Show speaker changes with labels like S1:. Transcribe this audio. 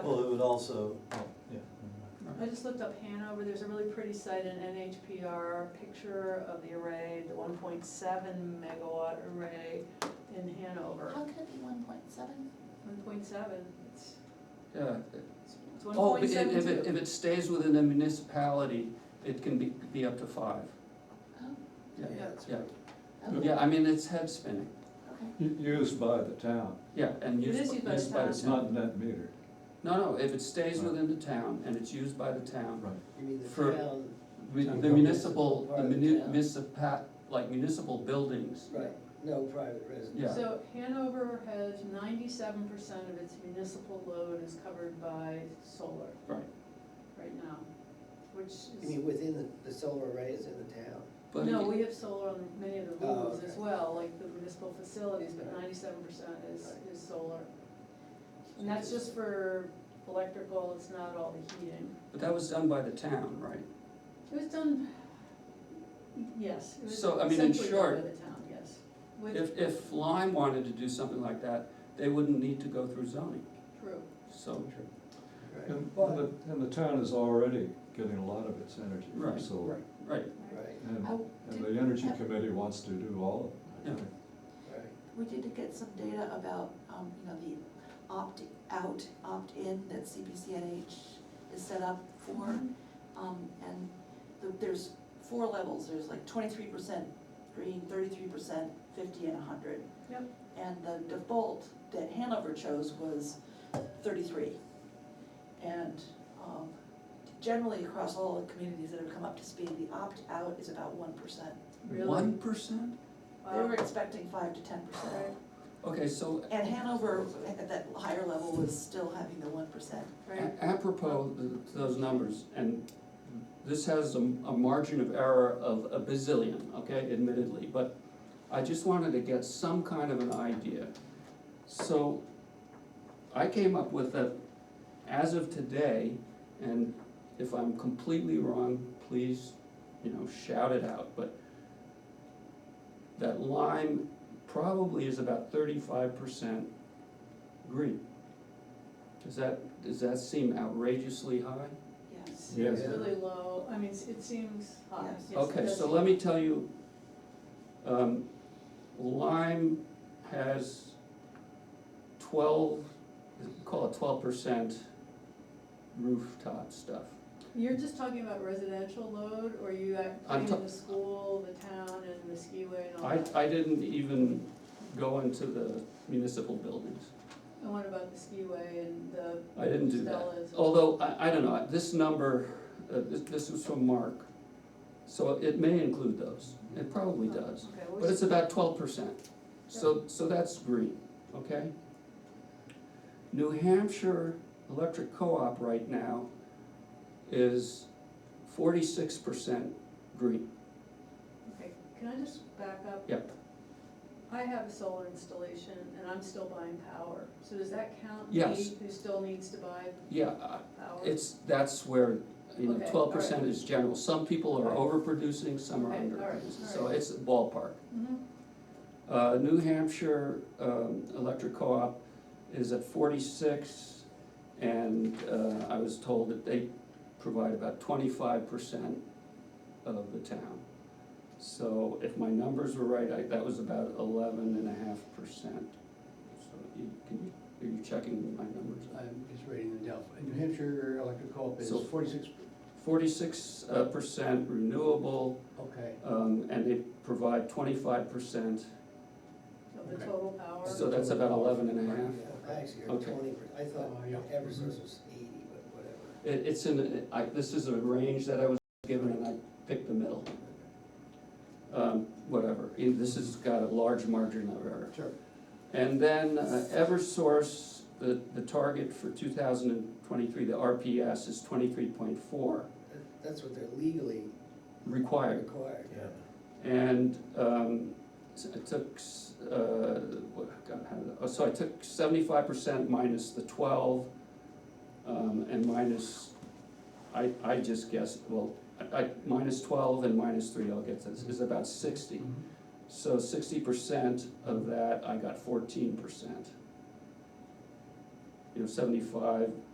S1: also, oh, yeah.
S2: I just looked up Hanover, there's a really pretty site in NHPR, picture of the array, the one point seven megawatt array in Hanover.
S3: How could it be one point seven?
S2: One point seven, it's,
S4: Yeah.
S2: it's one
S4: Oh, but
S2: point
S4: if
S2: seven
S4: if it, if
S2: two.
S4: it stays within a municipality, it can be, be up to five.
S3: Oh,
S4: Yeah,
S1: that's
S4: yeah.
S1: right.
S3: okay.
S4: Yeah, I mean, it's head spinning,
S3: Okay,
S1: U- Used by the town,
S4: yeah, and
S2: It
S4: used.
S2: is used by the town.
S1: it's not net metered.
S4: No, no, if it stays within the town and it's used by the town,
S1: Right.
S5: I mean, the
S4: For-
S5: town,
S4: we-
S1: Town
S4: the municipal, the
S5: government.
S4: muni- municipa, like municipal buildings,
S5: right, no private residence.
S4: yeah.
S2: So Hanover has ninety-seven percent of its municipal load is covered by solar
S4: right,
S2: right now, which is.
S5: I mean, within the, the solar arrays in the town.
S4: but.
S2: No,
S4: it-
S2: we have solar on many of the
S5: Oh,
S2: roofs as
S5: okay.
S2: well, like the municipal facilities, but
S5: Right.
S2: ninety-seven percent is,
S5: Right.
S2: is solar. And that's just for electrical, it's not all the heating.
S4: But that was done by the town, right?
S2: It was done, yes, it was
S4: So, I mean, in
S2: essentially done by
S4: short,
S2: the town, yes. With,
S4: If, if Lime wanted to do something like that, they wouldn't need to go through zoning,
S2: true,
S4: so.
S5: Right,
S1: And, and the, and the town is already getting a lot of its energy from
S4: Right.
S1: solar.
S5: Right.
S4: Right,
S5: right,
S1: And,
S3: Oh,
S1: and
S3: did-
S1: the energy
S3: have-
S1: committee wants to do all of
S4: Yeah.
S1: it, I think.
S5: right.
S3: we did get some data about, um, you know, the opt-out, opt-in that CPCNH is set up for. Um, and the- there's four levels, there's like twenty-three percent green, thirty-three percent, fifty and hundred.
S2: Yep.
S3: And the default that Hanover chose was thirty-three. And, um, generally across all the communities that have come up to speed, the opt-out is about one percent.
S2: really.
S4: one percent?
S3: They were
S2: Wow.
S3: expecting five to ten percent.
S4: Okay, so
S3: And Hanover, at that higher level, was still having the one percent.
S2: Right,
S4: A- Apropos th- to those numbers, and this has a, a margin of error of a bazillion, okay, admittedly, but I just wanted to get some kind of an idea. So I came up with that as of today, and if I'm completely wrong, please, you know, shout it out, but that lime probably is about thirty-five percent green. Does that, does that seem outrageously high?
S3: Yes.
S1: Yes.
S2: it's really low, I mean, it's- it seems high,
S3: Yes.
S2: yes, it
S4: Okay,
S2: does
S4: so
S2: seem-
S4: let me tell you, um, Lime has twelve, call it twelve percent rooftop stuff.
S2: You're just talking about residential load, or you act,
S4: I'm ta-
S2: in the school, the town, and the skiway and all
S4: I,
S2: that?
S4: I didn't even go into the municipal buildings.
S2: And what about the skiway and the
S4: I didn't do that.
S2: Stella's?
S4: Although, I, I don't know, this number, uh, this, this was from Mark, so it may include those, it probably
S2: Oh,
S4: does.
S2: okay,
S4: But
S2: well,
S4: it's about twelve percent, so, so that's green, okay? New Hampshire Electric Co-op right now is forty-six percent green,
S2: Okay, can I just back up?
S4: yep,
S2: I have a solar installation and I'm still buying power, so does that count me
S4: Yes.
S2: who still needs to buy
S4: yeah, I-
S2: power?
S4: it's, that's where, you know,
S2: Okay,
S4: twelve percent is general, some people are overproducing, some are
S2: Okay, all right,
S4: underproducing, so
S2: all right.
S4: it's a ballpark.
S2: Mhm.
S4: Uh, New Hampshire, um, Electric Co-op is at forty-six, and, uh, I was told that they provide about twenty-five percent of the town. So if my numbers were right, I, that was about eleven and a half percent. So you, can you, are you checking my numbers?
S6: I'm just reading them down. New Hampshire Electric Co-op is
S4: So-
S6: forty-six,
S4: Forty-six, uh, percent renewable,
S6: okay,
S4: um, and they provide twenty-five percent,
S2: Of the
S6: Okay.
S2: total power?
S4: so that's about eleven and a half.
S5: Yeah, Actually, or
S4: Okay.
S5: twenty, per- I thought
S6: Oh, yeah.
S5: Eversource was eighty, but whatever.
S4: It, it's in, I, this is a range that I was given and I picked the middle, um, whatever. Eh, This has got a large margin of error.
S6: sure.
S4: And then uh, Eversource, the, the target for two thousand and twenty-three, the RPS is twenty-three point four
S5: That- That's what they're legally
S4: required.
S5: required.
S4: And, um, s- I took, s- uh, what, God, how did I- oh, so I took seventy-five percent minus the twelve, um, and minus, I, I just guessed, well, I, I, minus twelve and minus three, I'll get this, is about sixty. So sixty percent of that, I got fourteen percent. You know, seventy-five